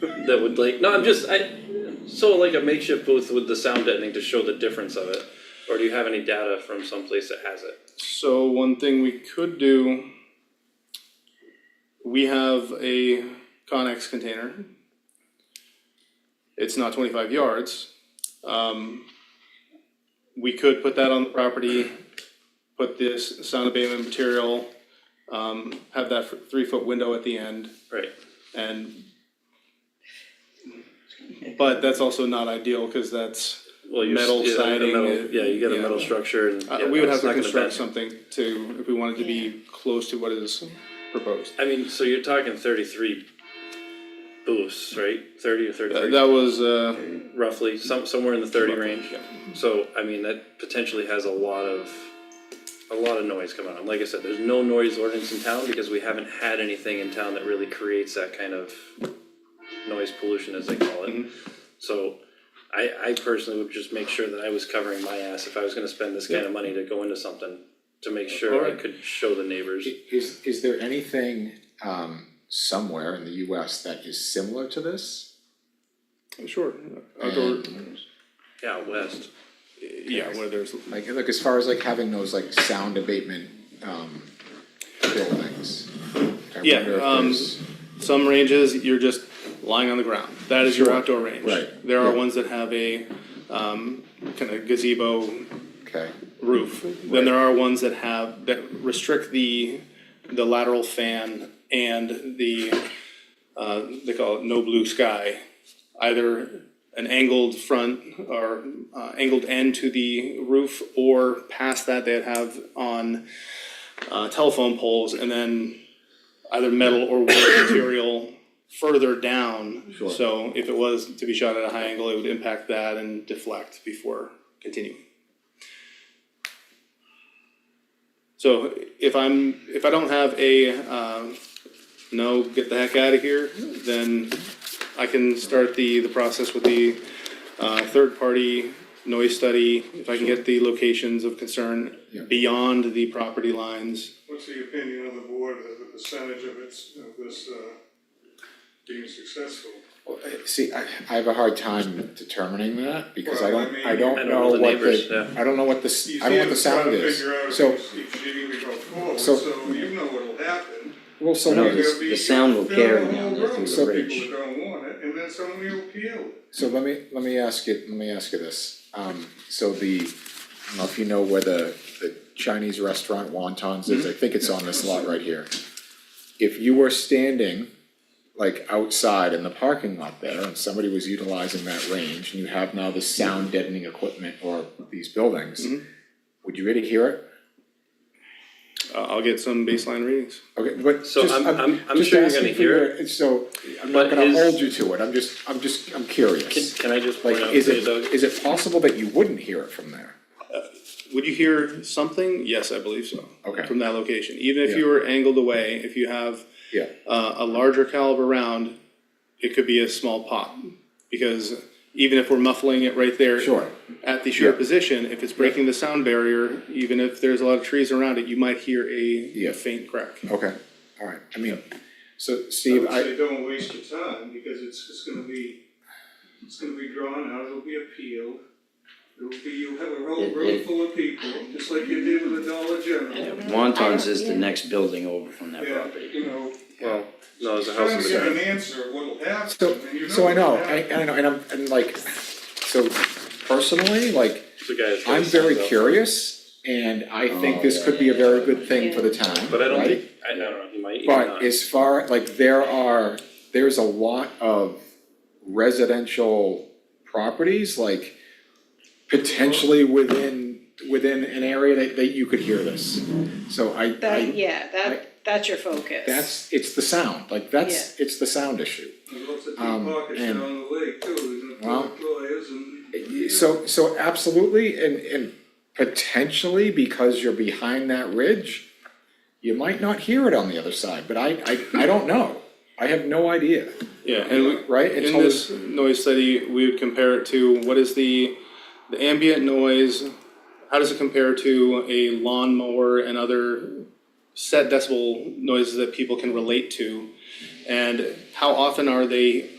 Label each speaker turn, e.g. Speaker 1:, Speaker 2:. Speaker 1: that would like, no, I'm just, I, so like a makeshift booth with the sound deadening to show the difference of it? Or do you have any data from someplace that has it?
Speaker 2: So one thing we could do, we have a Conex container. It's not twenty-five yards. Um, we could put that on the property, put this sound abatement material, um, have that f- three-foot window at the end
Speaker 1: Right,
Speaker 2: and but that's also not ideal, cause that's
Speaker 1: well, you're, s-
Speaker 2: Metal
Speaker 1: yeah, like a
Speaker 2: siding,
Speaker 1: metal- yeah, you get a
Speaker 2: yeah.
Speaker 1: metal structure and.
Speaker 2: Uh,
Speaker 1: yeah,
Speaker 2: we would have
Speaker 1: it's
Speaker 2: to
Speaker 1: not gonna
Speaker 2: construct
Speaker 1: bend.
Speaker 2: something to, if we wanted to be close to what is proposed.
Speaker 1: I mean, so you're talking thirty-three booths, right? Thirty or
Speaker 2: Uh,
Speaker 1: thirty-three,
Speaker 2: That was, uh,
Speaker 1: roughly, some, somewhere in the thirty range.
Speaker 2: yeah.
Speaker 1: So, I mean, that potentially has a lot of, a lot of noise coming on. Like I said, there's no noise ordinance in town because we haven't had anything in town that really creates that kind of noise pollution, as they call
Speaker 3: Mm-hmm.
Speaker 1: it. So, I, I personally would just make sure that I was covering my ass if I was gonna spend this kind of money to go into something, to make sure I
Speaker 2: Alright.
Speaker 1: could show the neighbors.
Speaker 3: Is, is there anything, um, somewhere in the US that is similar to this?
Speaker 2: sure, outdoor,
Speaker 3: And,
Speaker 1: Yeah, west.
Speaker 2: yeah, where there's,
Speaker 3: Like, look, as far as like having those like sound abatement, um, buildings. I
Speaker 2: Yeah,
Speaker 3: wonder if
Speaker 2: um,
Speaker 3: there's-
Speaker 2: some ranges, you're just lying on the ground, that is your
Speaker 3: Sure.
Speaker 2: outdoor range.
Speaker 3: Right.
Speaker 2: There are
Speaker 3: Yeah.
Speaker 2: ones that have a, um, kinda gazebo
Speaker 3: Okay,
Speaker 2: roof, then there are ones that have, that restrict the, the lateral fan and the, uh, they call it no blue sky. Either an angled front or, uh, angled end to the roof, or past that they'd have on, uh, telephone poles, and then either metal or wood material further down.
Speaker 3: Sure.
Speaker 2: So if it was to be shot at a high angle, it would impact that and deflect before continuing. So if I'm, if I don't have a, um, no, get the heck out of here, then I can start the, the process with the, uh, third party noise study. If I can get the locations of concern
Speaker 3: Yeah.
Speaker 2: beyond the property lines.
Speaker 4: What's the opinion of the board as the percentage of its, of this, uh, being successful?
Speaker 3: Well, I- see, I, I have a hard time determining that, because I
Speaker 4: Well, I
Speaker 3: don't,
Speaker 4: mean-
Speaker 3: I
Speaker 4: I
Speaker 3: don't
Speaker 1: don't
Speaker 3: know
Speaker 1: know the
Speaker 3: what
Speaker 1: neighbors, yeah.
Speaker 3: the, I don't know what the, s-
Speaker 4: You
Speaker 3: I don't know what the
Speaker 4: see it, trying
Speaker 3: sound
Speaker 4: to
Speaker 3: is.
Speaker 4: figure out if
Speaker 3: So,
Speaker 4: it's- Each year we go forward,
Speaker 3: so-
Speaker 4: so you know what'll happen.
Speaker 3: well, so
Speaker 4: There'll
Speaker 3: what is,
Speaker 4: be-
Speaker 5: the sound will
Speaker 4: there'll be a
Speaker 5: carry
Speaker 4: whole
Speaker 5: down there
Speaker 4: room
Speaker 5: through
Speaker 4: of
Speaker 3: the
Speaker 4: people
Speaker 5: ridge.
Speaker 4: that don't want it, and then someone will appeal it.
Speaker 3: So let me, let me ask you, let me ask you this, um, so the, I don't know if you know where the, the Chinese restaurant wontons
Speaker 1: Mm-hmm.
Speaker 3: is, I think it's on this lot right here. If you were standing, like, outside in the parking lot there, and somebody was utilizing that range, and you have now the sound deadening equipment or these buildings,
Speaker 1: Mm-hmm.
Speaker 3: would you really hear it?
Speaker 2: Uh, I'll get some baseline readings.
Speaker 3: Okay, but
Speaker 1: So
Speaker 3: just,
Speaker 1: I'm-
Speaker 3: I'm,
Speaker 1: I'm- I'm
Speaker 3: just
Speaker 1: sure you're
Speaker 3: asking
Speaker 1: gonna
Speaker 3: for
Speaker 1: hear
Speaker 3: your, it's so, I'm
Speaker 1: But
Speaker 3: not gonna
Speaker 1: is-
Speaker 3: hold you to it, I'm just, I'm just, I'm curious.
Speaker 1: Can, can I just point
Speaker 3: Like,
Speaker 1: out,
Speaker 3: is
Speaker 1: too,
Speaker 3: it,
Speaker 1: Doug?
Speaker 3: is it possible that you wouldn't hear it from there?
Speaker 2: Would you hear something? Yes, I believe so.
Speaker 3: Okay.
Speaker 2: From that location, even if
Speaker 3: Yeah.
Speaker 2: you were angled away, if you have
Speaker 3: Yeah,
Speaker 2: uh, a larger caliber round, it could be a small pop because even if we're muffling it right there
Speaker 3: Sure.
Speaker 2: at the sheer
Speaker 3: Yeah.
Speaker 2: position, if it's breaking the sound barrier, even if there's a lot of trees around it, you might hear a,
Speaker 3: Yeah.
Speaker 2: a faint crack.
Speaker 3: Uh, okay, all right, I mean, so
Speaker 4: I
Speaker 3: Steve,
Speaker 4: would
Speaker 3: I,
Speaker 4: say don't waste your time, because it's, it's gonna be, it's gonna be drawn out, it'll be appealed. It'll be, you'll have a whole
Speaker 5: It-
Speaker 4: room
Speaker 5: it-
Speaker 4: full of people, just like you did with the Dollar General.
Speaker 5: Wontons is the next building over from that
Speaker 4: Yeah,
Speaker 5: property.
Speaker 4: you know,
Speaker 1: Well, no, there's a house
Speaker 4: trying
Speaker 1: in
Speaker 4: to
Speaker 1: the
Speaker 4: get
Speaker 1: back.
Speaker 4: an answer of what'll happen,
Speaker 3: so,
Speaker 4: and you know.
Speaker 3: so I know,
Speaker 4: what'll
Speaker 3: I,
Speaker 4: happen.
Speaker 3: and I know, and I'm, and like, so personally, like,
Speaker 1: The guy that's got
Speaker 3: I'm
Speaker 1: his hand
Speaker 3: very
Speaker 1: up.
Speaker 3: curious, and I
Speaker 4: Oh,
Speaker 3: think this could be a very good thing for the town,
Speaker 1: But I don't
Speaker 3: right?
Speaker 1: think, I I don't know, he might, he might not.
Speaker 3: But as far, like, there are, there's a lot of residential properties, like, potentially within, within an area that, that you could hear this. So I,
Speaker 6: That,
Speaker 3: I,
Speaker 6: yeah,
Speaker 3: I-
Speaker 6: that, that's your focus.
Speaker 3: that's, it's the sound, like, that's, it's the sound issue.
Speaker 4: There's lots of deep
Speaker 3: Um,
Speaker 4: pockets
Speaker 3: and-
Speaker 4: down the lake too, there's
Speaker 3: Well,
Speaker 4: no lawyers and.
Speaker 3: So, so absolutely, and, and potentially, because you're behind that ridge, you might not hear it on the other side, but I, I, I don't know. I have no idea,
Speaker 2: Yeah, and we,
Speaker 3: right?
Speaker 2: In
Speaker 3: Until
Speaker 2: this noise study, we would compare it to what is the, the ambient noise, how does it compare to a lawnmower and other set decibel noises that people can relate to? And how often are they